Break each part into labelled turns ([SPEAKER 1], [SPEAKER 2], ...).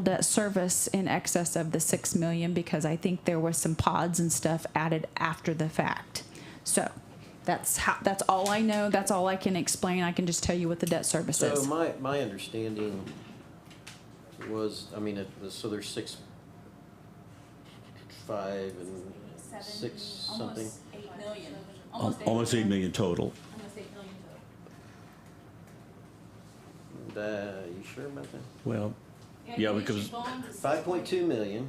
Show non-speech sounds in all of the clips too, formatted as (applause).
[SPEAKER 1] debt service in excess of the six million because I think there was some pods and stuff added after the fact. So that's how, that's all I know. That's all I can explain. I can just tell you what the debt service
[SPEAKER 2] So
[SPEAKER 1] is.
[SPEAKER 2] my, my understanding was, I mean, it was, so there's six, five and six something.
[SPEAKER 3] Almost eight million.
[SPEAKER 4] Al- Almost eight million total.
[SPEAKER 3] Almost eight million total.
[SPEAKER 2] Uh, you sure about that?
[SPEAKER 4] Well,
[SPEAKER 3] And
[SPEAKER 4] Yeah,
[SPEAKER 3] you
[SPEAKER 4] because-
[SPEAKER 3] issued bonds at
[SPEAKER 2] Five point two million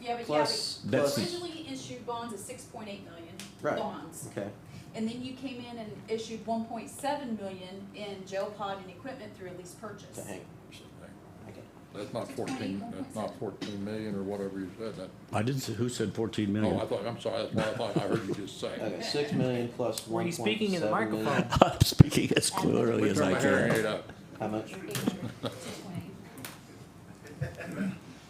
[SPEAKER 3] Yeah, but yeah,
[SPEAKER 2] plus,
[SPEAKER 3] but
[SPEAKER 4] That's-
[SPEAKER 2] plus,
[SPEAKER 3] originally issued bonds at six point eight million
[SPEAKER 2] Right.
[SPEAKER 3] bonds.
[SPEAKER 2] okay,
[SPEAKER 3] And then you came in and issued one point seven million in jail pod and equipment through a lease purchase.
[SPEAKER 2] so
[SPEAKER 3] (laughs)
[SPEAKER 2] hang, okay.
[SPEAKER 5] That's not fourteen, that's not fourteen million or whatever you said, that,
[SPEAKER 4] I didn't say, who said fourteen
[SPEAKER 5] oh, I
[SPEAKER 4] million?
[SPEAKER 5] thought, I'm sorry, that's what I thought I heard you just say.
[SPEAKER 3] (laughs)
[SPEAKER 2] Okay, six million plus
[SPEAKER 6] Were
[SPEAKER 2] one
[SPEAKER 6] you
[SPEAKER 2] point
[SPEAKER 6] speaking in the
[SPEAKER 2] seven million.
[SPEAKER 6] microphone?
[SPEAKER 4] (laughs) I'm speaking as clearly
[SPEAKER 5] Turn
[SPEAKER 4] as
[SPEAKER 5] my
[SPEAKER 4] I
[SPEAKER 5] hearing aid
[SPEAKER 4] can.
[SPEAKER 5] up.
[SPEAKER 2] How much?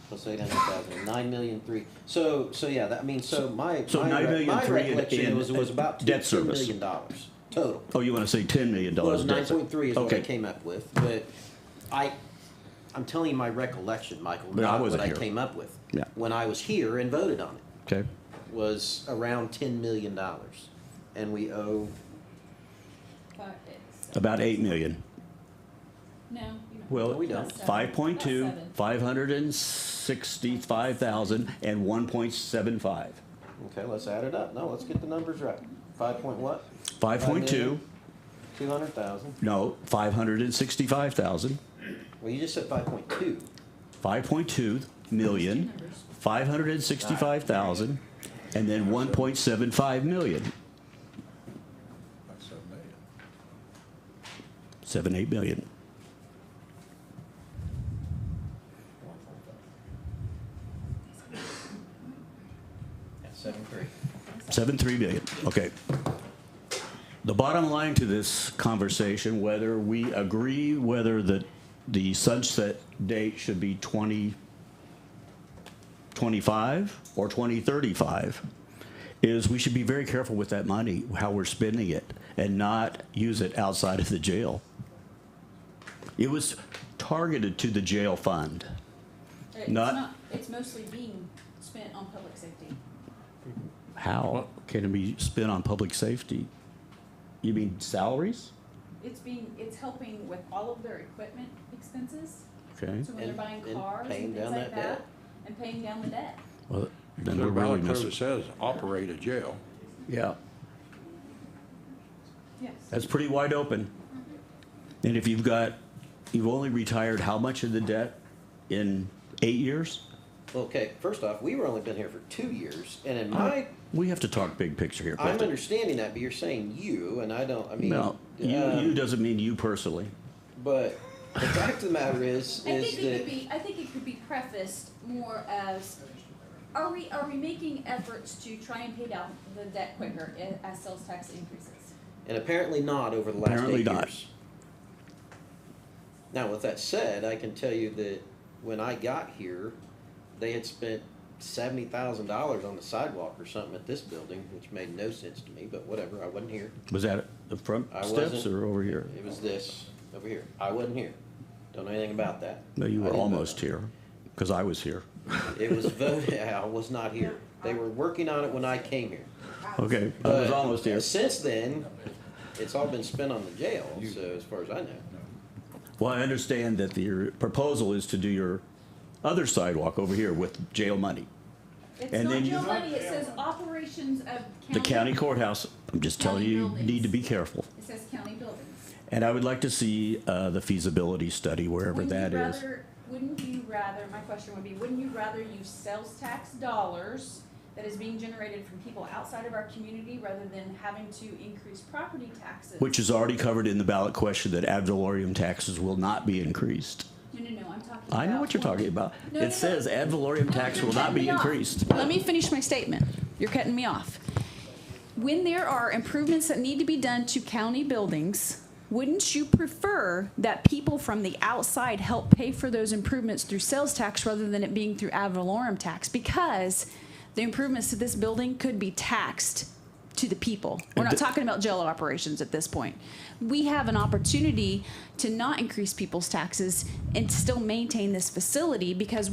[SPEAKER 2] Plus eight hundred thousand, nine million three. So, so yeah, that, I mean, so my,
[SPEAKER 4] So
[SPEAKER 2] my,
[SPEAKER 4] nine
[SPEAKER 2] re-
[SPEAKER 4] million
[SPEAKER 2] my
[SPEAKER 4] three in-
[SPEAKER 2] recollection
[SPEAKER 4] in
[SPEAKER 2] was, was about two,
[SPEAKER 4] debt
[SPEAKER 2] two
[SPEAKER 4] service.
[SPEAKER 2] million dollars total.
[SPEAKER 4] Oh, you wanna say ten million
[SPEAKER 2] Well,
[SPEAKER 4] dollars?
[SPEAKER 2] nine point three is what I
[SPEAKER 4] Okay.
[SPEAKER 2] came up with, but I, I'm telling you my recollection, Michael,
[SPEAKER 4] But I
[SPEAKER 2] not what
[SPEAKER 4] wasn't
[SPEAKER 2] I
[SPEAKER 4] here.
[SPEAKER 2] came up with.
[SPEAKER 4] Yeah.
[SPEAKER 2] When I was here and voted on it,
[SPEAKER 4] Okay,
[SPEAKER 2] was around ten million dollars, and we owe,
[SPEAKER 3] Five, eight,
[SPEAKER 4] about eight million.
[SPEAKER 3] no, you know.
[SPEAKER 4] Well,
[SPEAKER 2] No, we don't.
[SPEAKER 4] five point two,
[SPEAKER 3] Seven.
[SPEAKER 4] five hundred and sixty-five thousand, and one point seven five.
[SPEAKER 2] okay, let's add it up, no, let's get the numbers right. Five point what?
[SPEAKER 4] Five point two,
[SPEAKER 2] Two hundred thousand,
[SPEAKER 4] no, five hundred and sixty-five thousand,
[SPEAKER 2] well, you just said five point two,
[SPEAKER 4] five point two million, five hundred and sixty-five thousand, and then one point seven five million.
[SPEAKER 5] That's seven million.
[SPEAKER 4] Seven, eight million.
[SPEAKER 2] seven three.
[SPEAKER 4] Seven, three million, okay. The bottom line to this conversation, whether we agree whether the, the sunset date should be twenty twenty-five or twenty thirty-five, is we should be very careful with that money, how we're spending it, and not use it outside of the jail. It was targeted to the jail fund.
[SPEAKER 3] It's
[SPEAKER 4] not-
[SPEAKER 3] It's mostly being spent on public safety.
[SPEAKER 4] How can it be spent on public safety? You mean salaries?
[SPEAKER 3] It's being, it's helping with all of their equipment expenses.
[SPEAKER 4] Okay.
[SPEAKER 3] So when they're
[SPEAKER 2] And-
[SPEAKER 3] buying
[SPEAKER 2] and
[SPEAKER 3] cars
[SPEAKER 2] paying
[SPEAKER 3] and things
[SPEAKER 2] down
[SPEAKER 3] like
[SPEAKER 2] that debt.
[SPEAKER 3] that, and paying down the debt.
[SPEAKER 4] Well, then
[SPEAKER 5] So
[SPEAKER 4] we're
[SPEAKER 5] the
[SPEAKER 4] really
[SPEAKER 5] ballot
[SPEAKER 4] missing.
[SPEAKER 5] clearly says operate a jail.
[SPEAKER 4] Yeah,
[SPEAKER 3] Yes.
[SPEAKER 4] that's pretty wide open. And if you've got, you've only retired how much of the debt in eight years?
[SPEAKER 2] Okay, first off, we were only been here for two years, and in my
[SPEAKER 4] We have to talk big picture here,
[SPEAKER 2] I'm
[SPEAKER 4] Clifton.
[SPEAKER 2] understanding that, but you're saying you, and I don't. I mean,
[SPEAKER 4] No, you,
[SPEAKER 2] um,
[SPEAKER 4] you doesn't mean you personally.
[SPEAKER 2] But the fact of the matter is,
[SPEAKER 3] I
[SPEAKER 2] is
[SPEAKER 3] think it
[SPEAKER 2] that
[SPEAKER 3] could be, I think it could be prefaced more as, are we, are we making efforts to try and pay down the debt quicker i- as sales tax increases?
[SPEAKER 2] and apparently not over the last
[SPEAKER 4] Apparently
[SPEAKER 2] eight
[SPEAKER 4] not.
[SPEAKER 2] years. Now, with that said, I can tell you that when I got here, they had spent seventy thousand dollars on the sidewalk or something at this building, which made no sense to me. But whatever, I wasn't here.
[SPEAKER 4] Was that the front
[SPEAKER 2] I
[SPEAKER 4] steps
[SPEAKER 2] wasn't-
[SPEAKER 4] or over here?
[SPEAKER 2] It was this over here. I wasn't here. Don't know anything about that.
[SPEAKER 4] No, you
[SPEAKER 2] I
[SPEAKER 4] were
[SPEAKER 2] didn't vote
[SPEAKER 4] almost
[SPEAKER 2] on it.
[SPEAKER 4] here, because I
[SPEAKER 2] (laughs)
[SPEAKER 4] was here.
[SPEAKER 2] It was voted. (laughs) I was not here. They were working on it when I came here.
[SPEAKER 4] Okay, I was
[SPEAKER 2] But
[SPEAKER 4] almost here.
[SPEAKER 2] Since then, it's all been spent on the jail. So as far as I know,
[SPEAKER 4] Well, I understand that the proposal is to do your other sidewalk over here with jail money.
[SPEAKER 3] It's
[SPEAKER 4] And
[SPEAKER 3] not
[SPEAKER 4] then you-
[SPEAKER 3] real money, it says operations of county.
[SPEAKER 4] The county courthouse, I'm just telling you, you
[SPEAKER 3] County
[SPEAKER 4] need to be careful.
[SPEAKER 3] It says county buildings.
[SPEAKER 4] And I would like to see uh, the feasibility study, wherever
[SPEAKER 3] Wouldn't you
[SPEAKER 4] that is.
[SPEAKER 3] rather- Wouldn't you rather, my question would be, wouldn't you rather use sales tax dollars that is being generated from people outside of our community rather than having to increase property taxes?
[SPEAKER 4] Which is already covered in the ballot question that ad valorem taxes will not be increased.
[SPEAKER 3] No, no, no, I'm talking
[SPEAKER 4] I know
[SPEAKER 3] about
[SPEAKER 4] what you're talking about.
[SPEAKER 3] No, no, no.
[SPEAKER 4] It says ad valorem tax will not be
[SPEAKER 3] You're cutting me
[SPEAKER 4] increased.
[SPEAKER 3] off. Let me finish my statement. You're cutting me off. When there are improvements that need to be done to county buildings, wouldn't you prefer that people from the outside help pay for those improvements through sales tax rather than it being through ad valorem tax? Because the improvements to this building could be taxed to
[SPEAKER 1] to the people. We're not
[SPEAKER 7] th-
[SPEAKER 1] talking about jail operations at this point. We have an opportunity to not increase people's taxes and still maintain this facility because we.